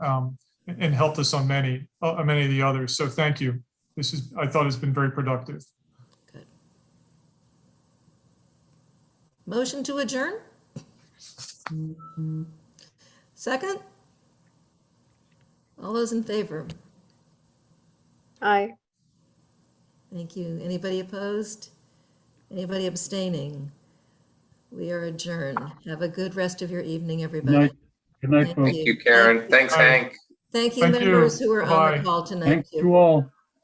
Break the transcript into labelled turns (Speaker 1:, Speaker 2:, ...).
Speaker 1: um, and helped us on many, uh, many of the others. So thank you. This is, I thought it's been very productive.
Speaker 2: Motion to adjourn? Second? All those in favor?
Speaker 3: Aye.
Speaker 2: Thank you. Anybody opposed? Anybody abstaining? We are adjourned. Have a good rest of your evening, everybody.
Speaker 4: night. Good night,
Speaker 2: Thank
Speaker 4: folks.
Speaker 2: you.
Speaker 5: Thank you, Karen. Thanks,
Speaker 1: Bye.
Speaker 5: Hank.
Speaker 2: Thank you,
Speaker 1: Thank you.
Speaker 2: members who were on
Speaker 1: Bye.
Speaker 2: the call tonight.
Speaker 4: Thanks
Speaker 2: too.
Speaker 4: to all.